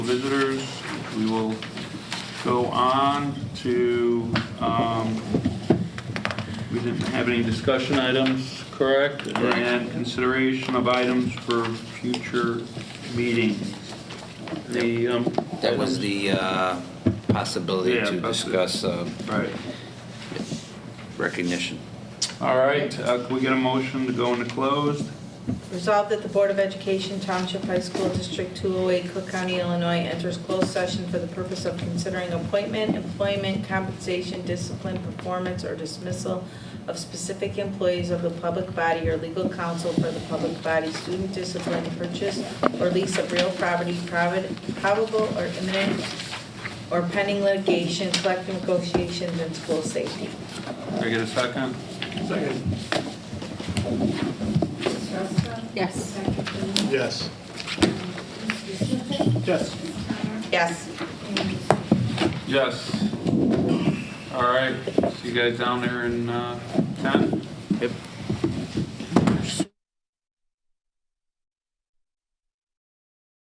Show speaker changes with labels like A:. A: visitors. We will go on to, um, we didn't have any discussion items, correct? And consideration of items for future meetings. The, um,
B: That was the uh, possibility
A: Yeah,
B: to
A: possibility.
B: discuss uh,
A: Right.
B: recognition.
A: All right, uh, can we get a motion to go into closed?
C: Resolved that the Board of Education Township High School District 208, Cook County, Illinois enters closed session for the purpose of considering appointment, employment, compensation, discipline, performance, or dismissal of specific employees of the public body or legal counsel for the public body, student discipline, purchase or lease of real property, provid- probable or imminent or pending litigation, collective negotiations, and school safety.
A: Can I get a second?
C: Yes.
D: Yes. Yes.
C: Yes.
A: Yes. All right, see you guys down there in uh, 10?
B: Yep.